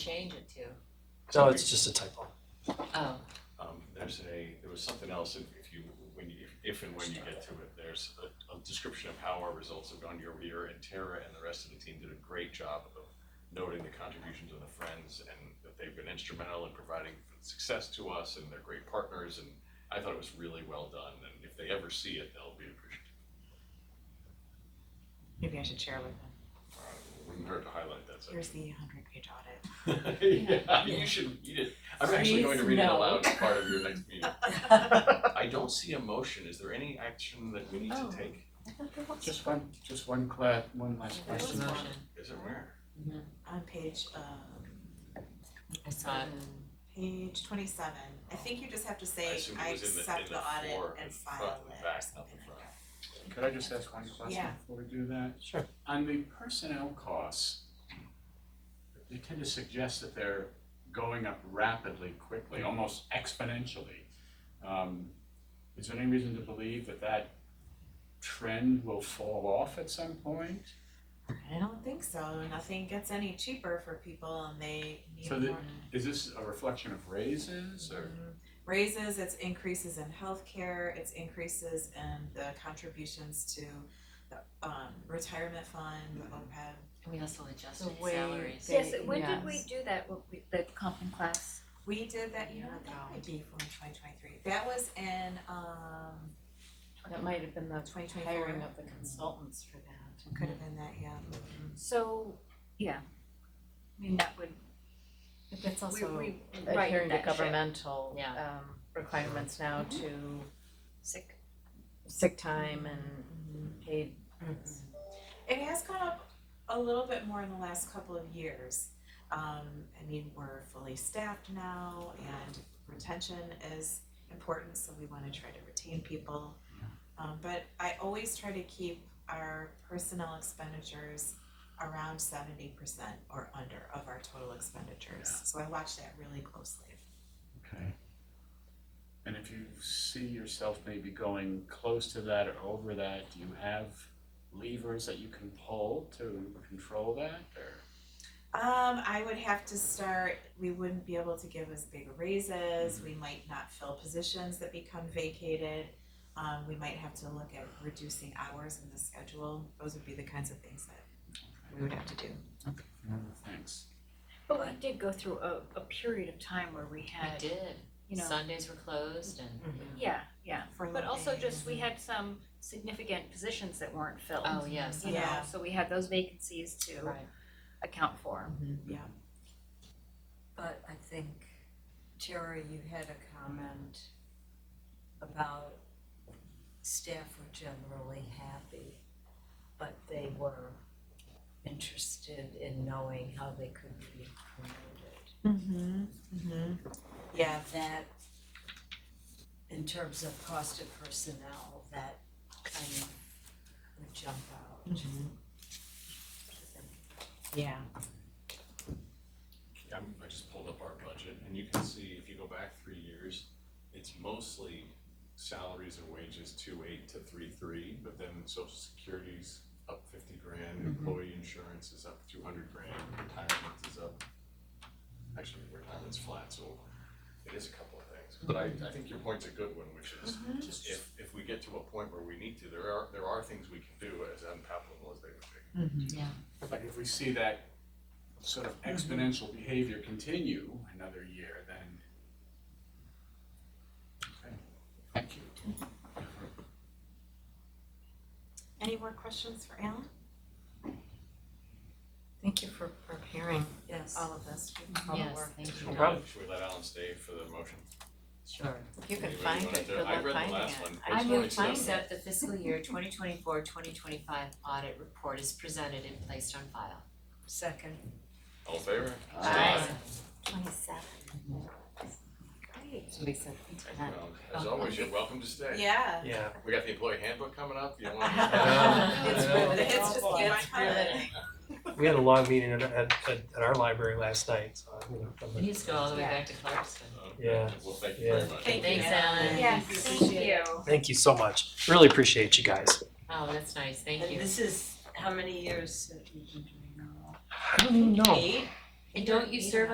change it to? No, it's just a typo. Oh, Um, there's a, there was something else, if if you, when you, if and when you get to it, there's a, a description of how our results have gone year over year, and Tara and the rest of the team did a great job of noting the contributions of the friends, and that they've been instrumental in providing success to us, and they're great partners, and I thought it was really well done, and if they ever see it, they'll be appreciative. Maybe I should share with them. Uh, Wouldn't hurt to highlight that Here's section. the hundred page audit. Yeah, you should read it, I'm actually going to Please, read it no. aloud as part of your next meeting. I don't see a motion, is there any action that we need to Oh. take? Just one, just one cla- one last there was question. one, Is it where? On page, um, I saw it. page twenty-seven, I think you just have to I say, assumed it I was in the- in accept the the audit fore and and file front and it back, or not something the front. like that. Could I just ask one question Yeah. before we do that? Sure. On the personnel costs, they tend to suggest that they're going up rapidly, quickly, almost exponentially. Um, is there any reason to believe that that trend will fall off at some point? I don't think so, nothing gets any cheaper for people and they need So more. Mm-hmm. the- Is this a reflection of raises or? Raises, it's increases in healthcare, it's increases in the contributions to the um retirement fund, the Mm-hmm. OPEB. And we also adjusted The way salaries. they- Yes, when did we Yes. do that, What we- the Compton class? We did that, you know, Year that ago. might be from twenty twenty-three, that was in um That might have been the twenty twenty-four. hiring of the consultants for that. Could have been that, yeah. So, yeah, I mean, that would, But that's we, also we adhering righted to that ship, governmental uh, Yeah. um requirements now to sick, sick time and paid. It has gone up a little bit more in the last couple of years. Um, I mean, we're fully staffed now and retention is important, so we wanna try to retain people. Um, but I always try to keep our personnel expenditures around seventy percent or under of our total expenditures. So I watch that really closely. Okay. And if you see yourself maybe going close to that or over that, do you have levers that you can pull to control that or? Um, I would have to start, we wouldn't be able to give as big raises, we Mm-hmm. might not fill positions that become vacated. Um, we might have to look at reducing hours in the schedule, those would be the kinds of things that we would have to do. Thanks. but we did go through a, a period of time where we We had, did, you know, Mm-hmm. Sundays were closed and, yeah, yeah. For But also looking. just, we had some significant positions that weren't filled, oh, yes, you know, Yeah. so we had those vacancies to right. account for. But I think, Tara, you had a comment about staff were generally happy, but they were interested in knowing how they could be promoted. Mm-hmm, mm-hmm, yeah, That, in terms of cost of personnel, that kind of would jump out. Mm-hmm. yeah. Yeah, I'm- I just pulled up our budget and you can see if you go back three years, it's mostly salaries and wages two eight to three three, but then social security's up fifty grand, employee insurance is up two hundred grand, retirement is up. Actually, retirement's flat, so it is a couple of things, but I, I think your point's a good one, which is if, if we get to a point where we need to, there are, there are things we can do as unpalatable as they would be. Like if we see that sort of exponential behavior continue another year, then. Okay, thank you. Any more questions for Alan? Thank you for preparing Yes. all of this. all the Yes, work. thank Should you. we let- Should we let Alan stay for the motion? Sure. If you can Anybody find wanna it, do- good I luck read the finding last it. one. I page move 27. to accept the fiscal year 2024-2025 audit report is presented and placed on file. Second, All in favor? Aye. Twenty-seven. Great. Somebody said Well, As always, you're welcome to stay. Yeah. Yeah. We got the employee handbook coming up, you want Yeah. It's riveting, it's just, Awful. yeah, It's riveting. We had a long meeting at, at, at at our library last night, so, you know. from It the- needs to go all the way back to Clarkston. Yeah. Well, thank you very Yeah. much. Thank you. Thanks, Alan. Yes, thank you. Thank you so much. Really appreciate you guys. Oh, that's nice, thank and you. this is how many years have you been doing now? I don't even know. Eight? And don't you serve